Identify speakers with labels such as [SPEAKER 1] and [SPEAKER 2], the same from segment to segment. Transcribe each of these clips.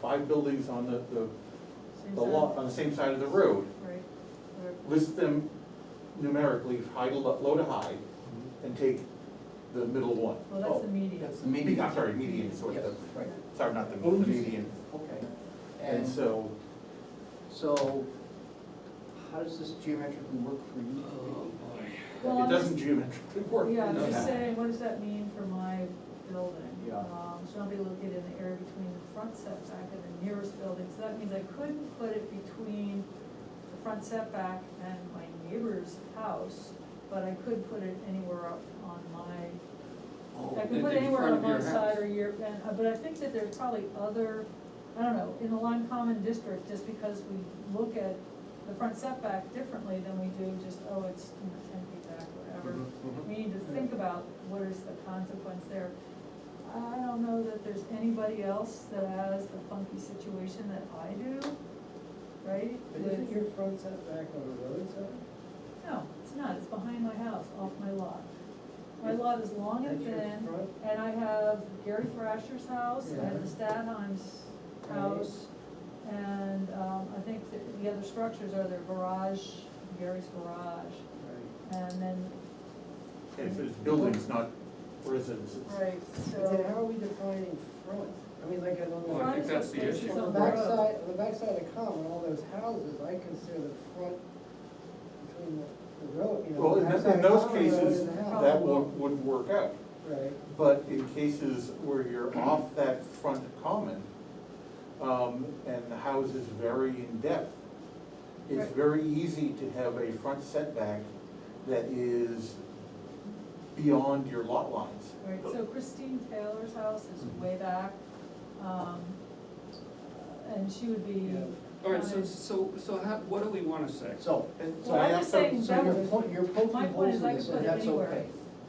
[SPEAKER 1] five buildings on the, the,
[SPEAKER 2] Same
[SPEAKER 1] the
[SPEAKER 2] side.
[SPEAKER 1] lot, on the same side of the road,
[SPEAKER 2] Right, or
[SPEAKER 1] list them numerically, high to low, low to high, and take the middle one.
[SPEAKER 2] Well, that's the median.
[SPEAKER 3] Oh, That's the
[SPEAKER 1] Median,
[SPEAKER 3] median.
[SPEAKER 1] I'm sorry, median is what
[SPEAKER 3] Yes,
[SPEAKER 1] the,
[SPEAKER 3] Right,
[SPEAKER 1] sorry, not the
[SPEAKER 2] Oh,
[SPEAKER 1] the median.
[SPEAKER 3] okay.
[SPEAKER 1] And
[SPEAKER 3] And
[SPEAKER 1] so,
[SPEAKER 3] so, how does this geometrically work for you?
[SPEAKER 2] Well,
[SPEAKER 1] it
[SPEAKER 2] I'm
[SPEAKER 1] doesn't
[SPEAKER 2] just,
[SPEAKER 1] geometrically work.
[SPEAKER 2] yeah, I'm
[SPEAKER 1] no.
[SPEAKER 2] just saying, what does that mean for my building?
[SPEAKER 3] Yeah.
[SPEAKER 2] Um, Shall be located in the area between the front setback and the nearest building, so that means I couldn't put it between the front setback and my neighbor's house, but I could put it anywhere up on my, I could
[SPEAKER 4] Oh, in-
[SPEAKER 2] put it
[SPEAKER 4] in
[SPEAKER 2] anywhere
[SPEAKER 4] front
[SPEAKER 2] on
[SPEAKER 4] of your
[SPEAKER 2] one side
[SPEAKER 4] house.
[SPEAKER 2] or your, and, uh, but I think that there's probably other, I don't know, in the Lime Common District, just because we look at the front setback differently than we do just, oh, it's, you know, ten feet back, whatever.
[SPEAKER 1] Mhm, mhm.
[SPEAKER 2] We need to think about what is the consequence there. I don't know that there's anybody else that has the funky situation that I do, right?
[SPEAKER 5] But isn't
[SPEAKER 2] With-
[SPEAKER 5] your front setback on the road side?
[SPEAKER 2] No, it's not, it's behind my house, off my lot. My lot is long and
[SPEAKER 5] That's your
[SPEAKER 2] thin,
[SPEAKER 5] front?
[SPEAKER 2] and I have Gary Thrasher's house, I have the Stadheim's
[SPEAKER 5] Right.
[SPEAKER 2] house, and, um, I think the, the other structures are their garage, Gary's garage, and then,
[SPEAKER 1] Okay, so it's buildings, not residences.
[SPEAKER 2] right,
[SPEAKER 5] But then how
[SPEAKER 2] so,
[SPEAKER 5] are we defining front? I mean, like, on the.
[SPEAKER 4] Well, Oh, I think
[SPEAKER 2] Front
[SPEAKER 4] that's the
[SPEAKER 2] space is
[SPEAKER 4] issue.
[SPEAKER 2] on
[SPEAKER 5] On the
[SPEAKER 2] the road.
[SPEAKER 5] backside, on the backside of the common, all those houses, I consider the front between the, the road, you know.
[SPEAKER 1] Well,
[SPEAKER 5] the
[SPEAKER 1] in,
[SPEAKER 5] backside
[SPEAKER 1] in
[SPEAKER 5] of the
[SPEAKER 1] those
[SPEAKER 5] common road
[SPEAKER 1] cases,
[SPEAKER 5] and the house.
[SPEAKER 1] that would, would work out.
[SPEAKER 5] Right,
[SPEAKER 1] But in cases where you're off that front common, um, and the house is very in depth, it's
[SPEAKER 2] Right.
[SPEAKER 1] very easy to have a front setback that is beyond your lot lines.
[SPEAKER 2] right, so Christine Taylor's house is way back, um, and she would be.
[SPEAKER 5] Yeah.
[SPEAKER 4] All right, so,
[SPEAKER 2] counted-
[SPEAKER 4] so, so how, what do we wanna say?
[SPEAKER 3] So,
[SPEAKER 1] And so
[SPEAKER 2] Well,
[SPEAKER 1] I
[SPEAKER 2] I'm
[SPEAKER 1] have
[SPEAKER 2] just
[SPEAKER 1] some-
[SPEAKER 2] saying
[SPEAKER 3] so you're
[SPEAKER 2] that-
[SPEAKER 3] po- you're
[SPEAKER 2] My
[SPEAKER 3] poking
[SPEAKER 2] point
[SPEAKER 3] holes
[SPEAKER 2] is
[SPEAKER 3] in
[SPEAKER 2] I could
[SPEAKER 3] this,
[SPEAKER 2] put
[SPEAKER 3] and
[SPEAKER 2] it
[SPEAKER 3] that's
[SPEAKER 2] anywhere.
[SPEAKER 3] okay.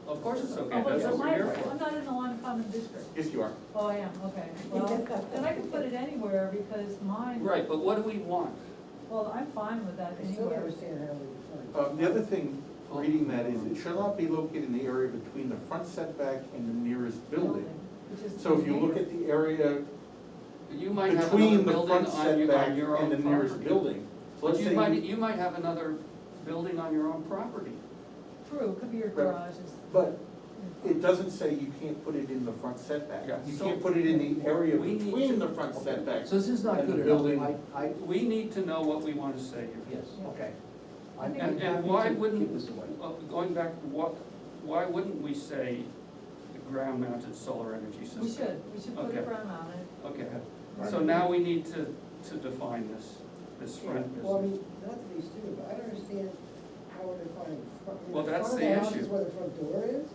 [SPEAKER 4] Of course it's okay,
[SPEAKER 2] Oh, but
[SPEAKER 4] that's
[SPEAKER 2] it's
[SPEAKER 4] what
[SPEAKER 2] my,
[SPEAKER 4] we're here
[SPEAKER 2] I'm
[SPEAKER 4] for.
[SPEAKER 2] not in the Lime Common District.
[SPEAKER 1] Yes, you are.
[SPEAKER 2] Oh, I am, okay. Well, then I can put it anywhere because mine,
[SPEAKER 4] Right, but what do we want?
[SPEAKER 2] well, I'm fine with that
[SPEAKER 5] I still don't
[SPEAKER 2] anywhere.
[SPEAKER 5] understand how we define.
[SPEAKER 1] Um, the other thing, reading that is, it shall not be located in the area between the front setback and the nearest building.
[SPEAKER 2] which is
[SPEAKER 1] So if you look at the area
[SPEAKER 4] You might have another
[SPEAKER 1] between the
[SPEAKER 4] building
[SPEAKER 1] front
[SPEAKER 4] on your,
[SPEAKER 1] setback
[SPEAKER 4] on your own
[SPEAKER 1] and the
[SPEAKER 4] property.
[SPEAKER 1] nearest building,
[SPEAKER 4] But
[SPEAKER 1] let's
[SPEAKER 4] you
[SPEAKER 1] say.
[SPEAKER 4] might, you might have another building on your own property.
[SPEAKER 2] True, could be your
[SPEAKER 1] Right.
[SPEAKER 2] garage is.
[SPEAKER 1] But It doesn't say you can't put it in the front setback.
[SPEAKER 4] Yeah.
[SPEAKER 1] You can't put it in the area
[SPEAKER 4] We need to-
[SPEAKER 1] between the front setback.
[SPEAKER 3] So this is not
[SPEAKER 1] And the
[SPEAKER 3] good
[SPEAKER 1] building-
[SPEAKER 3] enough, I, I,
[SPEAKER 4] We need to know what we wanna say here.
[SPEAKER 3] yes, okay. I'm
[SPEAKER 2] And-
[SPEAKER 3] I'm
[SPEAKER 4] And, and
[SPEAKER 3] happy
[SPEAKER 4] why
[SPEAKER 3] to
[SPEAKER 4] wouldn't,
[SPEAKER 3] Keep this away.
[SPEAKER 4] uh, going back, what, why wouldn't we say the ground mounted solar energy system?
[SPEAKER 2] We should, we should put a
[SPEAKER 4] Okay.
[SPEAKER 2] brown on it.
[SPEAKER 4] Okay,
[SPEAKER 5] Right.
[SPEAKER 4] so now we need to, to define this, this front
[SPEAKER 5] Yeah, Well, I
[SPEAKER 4] business.
[SPEAKER 5] mean, not to be stupid, but I don't understand how we're defining front. I mean,
[SPEAKER 4] Well, that's
[SPEAKER 5] front
[SPEAKER 4] the
[SPEAKER 5] of house
[SPEAKER 4] issue.
[SPEAKER 5] Is where the front door is,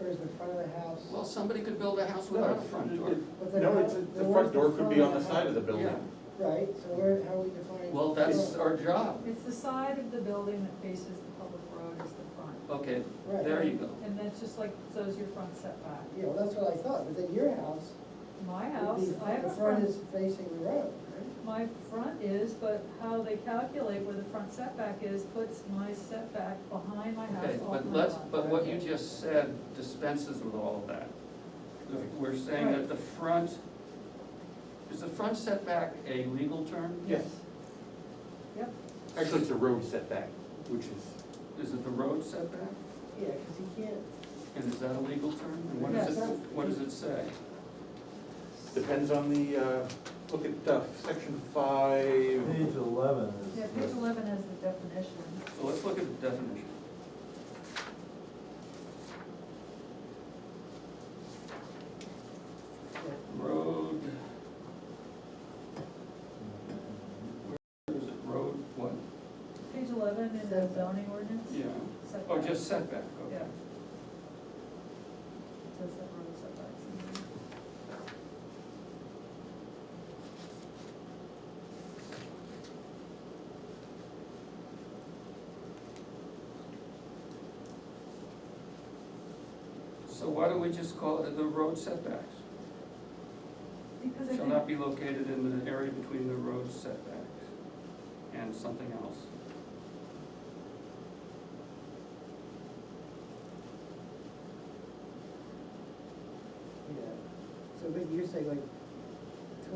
[SPEAKER 5] or is the front of the house?
[SPEAKER 4] Well, somebody could build a house without a front door.
[SPEAKER 5] But then
[SPEAKER 1] No,
[SPEAKER 5] how-
[SPEAKER 1] it's, the
[SPEAKER 5] then where's
[SPEAKER 1] front door could be on the side of the
[SPEAKER 4] Yeah,
[SPEAKER 1] building.
[SPEAKER 5] Right, so where, how are we defining?
[SPEAKER 4] well, that's our job.
[SPEAKER 2] It's the side of the building that faces the public road is the front.
[SPEAKER 4] Okay,
[SPEAKER 5] Right.
[SPEAKER 4] there you go.
[SPEAKER 2] And that's just like, so is your front setback.
[SPEAKER 5] Yeah, well, that's what I thought, but then your house.
[SPEAKER 2] My
[SPEAKER 5] would
[SPEAKER 2] house,
[SPEAKER 5] be-
[SPEAKER 2] I have
[SPEAKER 5] The
[SPEAKER 2] a
[SPEAKER 5] front
[SPEAKER 2] front,
[SPEAKER 5] is facing the road,
[SPEAKER 2] my front is, but how they calculate where the front setback is puts my setback behind my house
[SPEAKER 4] Okay,
[SPEAKER 2] off
[SPEAKER 4] but
[SPEAKER 2] my
[SPEAKER 4] let's,
[SPEAKER 2] lot.
[SPEAKER 4] but what you just said dispenses with all of that. We're saying that the front, is the front setback a legal term?
[SPEAKER 1] Yes.
[SPEAKER 2] Yep.
[SPEAKER 1] Actually, it's a road setback, which is,
[SPEAKER 4] Is it the road setback?
[SPEAKER 5] right? Yeah, because he can't,
[SPEAKER 4] And is that a legal term? And what does it,
[SPEAKER 5] Yes.
[SPEAKER 4] what does it say?
[SPEAKER 1] depends on the, uh, look at uh, section five.
[SPEAKER 6] Page eleven is.
[SPEAKER 2] Yeah, page eleven has the definition.
[SPEAKER 4] So let's look at the definition. Road, is it road, what?
[SPEAKER 2] Page eleven in the zoning ordinance?
[SPEAKER 4] Yeah,
[SPEAKER 2] Setback.
[SPEAKER 4] oh, just setback,
[SPEAKER 2] Yeah.
[SPEAKER 4] okay.
[SPEAKER 2] Does that road setbacks?
[SPEAKER 4] So why don't we just call it the road setbacks?
[SPEAKER 2] Because I
[SPEAKER 4] Shall not
[SPEAKER 2] think,
[SPEAKER 4] be located in the area between the road setbacks and something else.
[SPEAKER 5] yeah. So, but you're saying like,